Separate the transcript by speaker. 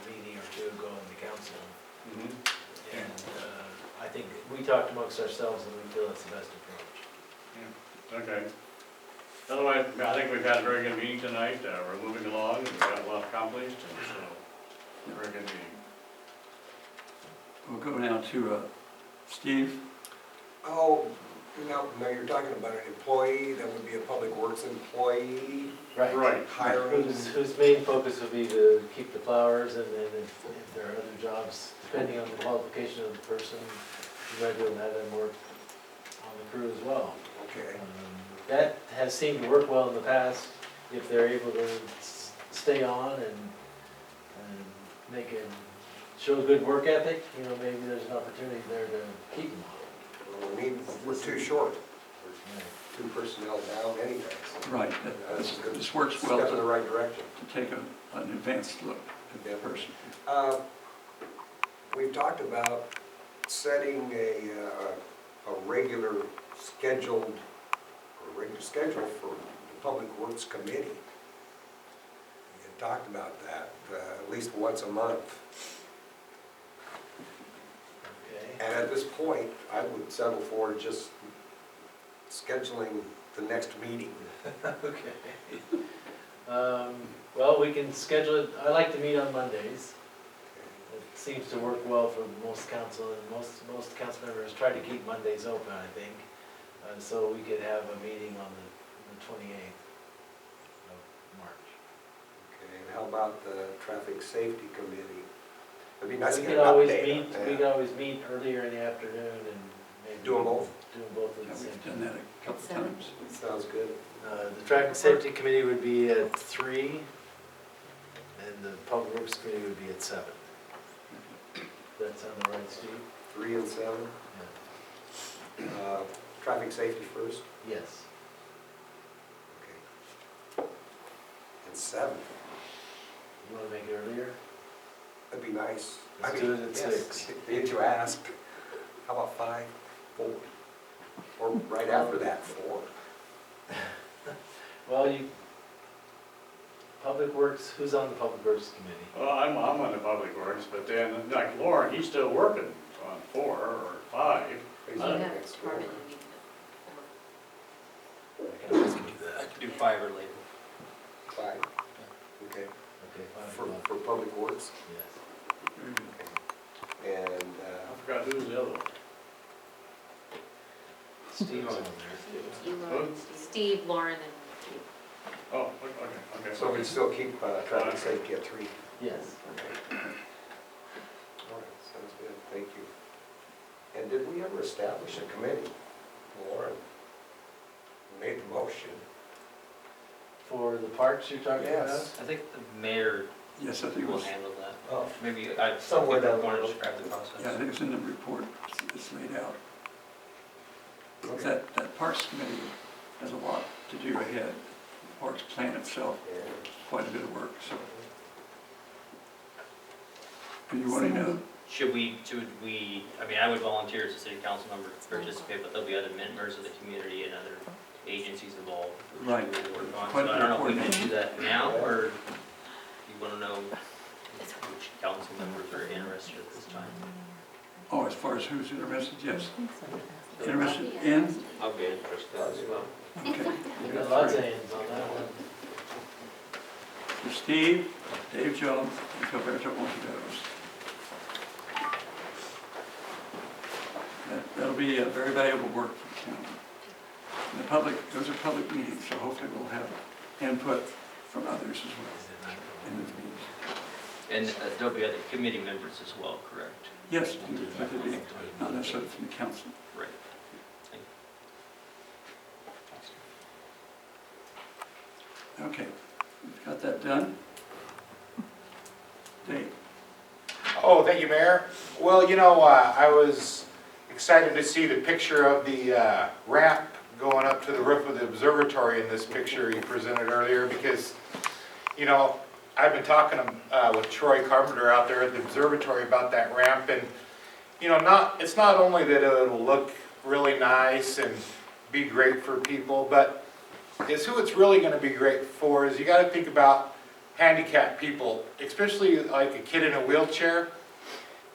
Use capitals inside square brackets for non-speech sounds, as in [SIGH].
Speaker 1: Mm-hmm.
Speaker 2: And uh, I think we talked amongst ourselves and we feel that's the best approach.
Speaker 1: Okay. Otherwise, I think we've had a very good meeting tonight, uh, we're moving along, and we've got a lot accomplished, and so, very good meeting.
Speaker 3: We'll go now to uh, Steve.
Speaker 4: Oh, no, no, you're talking about an employee, that would be a public works employee,
Speaker 1: Right.
Speaker 4: hiring.
Speaker 2: Whose, whose main focus would be to keep the flowers and then if, if there are other jobs, depending on the qualification of the person, you might be able to have them work on the crew as well.
Speaker 4: Okay,
Speaker 2: Um, That has seemed to work well in the past, if they're able to s- stay on and, and make it, show a good work ethic, you know, maybe there's an opportunity there to keep them
Speaker 4: Well, we need, we're too short,
Speaker 2: on.
Speaker 4: two personnel down anyway, so
Speaker 3: Right,
Speaker 4: that's
Speaker 3: this,
Speaker 4: a good
Speaker 3: this works well
Speaker 4: step in the
Speaker 3: to,
Speaker 4: right direction.
Speaker 3: to take a, an advanced look at that person.
Speaker 4: Uh, We've talked about setting a, uh, a regular scheduled, a regular schedule for the Public Works Committee. We had talked about that, uh, at least once a month.
Speaker 2: Okay,
Speaker 4: And at this point, I would settle for just scheduling the next meeting.
Speaker 2: okay. Um, well, we can schedule it, I like to meet on Mondays. It seems to work well for most council, and most, most council members try to keep Mondays open, I think. Uh, so we could have a meeting on the, the twenty-eighth of March.
Speaker 4: Okay, and how about the Traffic Safety Committee? It'd be nice to
Speaker 2: We
Speaker 4: get
Speaker 2: could
Speaker 4: an
Speaker 2: always
Speaker 4: update
Speaker 2: meet,
Speaker 4: on
Speaker 2: we
Speaker 4: that.
Speaker 2: could always meet earlier in the afternoon and maybe.
Speaker 4: Do 'em both?
Speaker 2: Do 'em both
Speaker 3: Yeah,
Speaker 2: at the same
Speaker 3: We've
Speaker 2: time.
Speaker 3: done that a couple
Speaker 5: Seven.
Speaker 3: times.
Speaker 4: Sounds good.
Speaker 2: Uh, The traffic safety committee would be at three, and the public works committee would be at seven. That's on the right, Steve?
Speaker 4: Three and seven,
Speaker 2: Yeah.
Speaker 4: uh, Traffic Safety first,
Speaker 2: Yes.
Speaker 4: okay. And seven,
Speaker 2: You want to make it earlier?
Speaker 4: that'd be nice. I
Speaker 2: Let's do
Speaker 4: mean,
Speaker 2: it at
Speaker 4: yes,
Speaker 2: six.
Speaker 4: Did [LAUGHS] you ask? How about five, four? Or right after that, four?
Speaker 2: Well, you, Public Works, who's on the Public Works Committee?
Speaker 1: Well, I'm, I'm on the public works, but then, like Lauren, he's still working on four or five.
Speaker 4: He's
Speaker 1: Uh,
Speaker 4: on
Speaker 5: Yeah,
Speaker 4: next door.
Speaker 5: department meeting at
Speaker 2: I can always do that.
Speaker 6: Do five or later.
Speaker 4: Five, okay.
Speaker 2: Okay,
Speaker 4: For,
Speaker 2: five o'clock,
Speaker 4: for public works,
Speaker 2: yes.
Speaker 4: and,
Speaker 1: I
Speaker 4: uh,
Speaker 1: forgot who's the other one.
Speaker 2: [LAUGHS] Steve's on there.
Speaker 5: four. You, Lauren, and Steve. Steve, Lauren, and you.
Speaker 1: Oh, okay, okay.
Speaker 4: so we still keep uh, traffic safety at three.
Speaker 2: Yes.
Speaker 4: Okay. All right, sounds good, thank you. And did we ever establish a committee? Lauren made the motion.
Speaker 2: For the parks you're talking about?
Speaker 4: Yes.
Speaker 6: I think the mayor
Speaker 3: Yes, I think it
Speaker 6: will
Speaker 3: was,
Speaker 6: handle that.
Speaker 4: Oh,
Speaker 6: Maybe I,
Speaker 4: Somewhere
Speaker 6: somewhere that
Speaker 4: down the
Speaker 6: want to
Speaker 4: road.
Speaker 6: describe the
Speaker 3: yeah, I
Speaker 6: process.
Speaker 3: think it was in the report, It's- it's laid out.
Speaker 4: okay.
Speaker 3: That, that Parks Committee has a lot to do ahead. Parks Plan itself,
Speaker 4: Yeah.
Speaker 3: quite a bit of work, so. Do you want to know?
Speaker 6: Should we, should we, I mean, I would volunteer as a city council member to participate, but there'll be other members of the community and other agencies involved. who
Speaker 3: Right.
Speaker 6: we work on.
Speaker 3: Quite a
Speaker 6: So I
Speaker 3: bit of
Speaker 6: don't know if we can
Speaker 3: coordination.
Speaker 6: do that now, or you want to know which council members are interested at this time?
Speaker 3: Oh, as far as who's interested, yes. Interested in?
Speaker 6: I'll be interested
Speaker 4: as well.
Speaker 3: Okay.
Speaker 2: We've got lots of hands on that one.
Speaker 3: So Steve, Dave Jones, and Gilberto Montiveros. That- That'll be a very valuable work for the county. And the public, those are public meetings, so hopefully we'll have input from others as well in those meetings.
Speaker 6: And uh, there'll be other committee members as well, correct?
Speaker 3: Yes, but it'll be not necessarily from the council.
Speaker 6: Right.
Speaker 3: Okay, we've got that done. Dave,
Speaker 7: Oh, thank you, Mayor. Well, you know, uh, I was excited to see the picture of the uh, ramp going up to the roof of the observatory in this picture you presented earlier, because, you know, I've been talking uh, with Troy Carpenter out there at the observatory about that ramp, and, you know, not, it's not only that it'll look really nice and be great for people, but is who it's really gonna be great for, is you gotta think about handicapped people, especially like a kid in a wheelchair.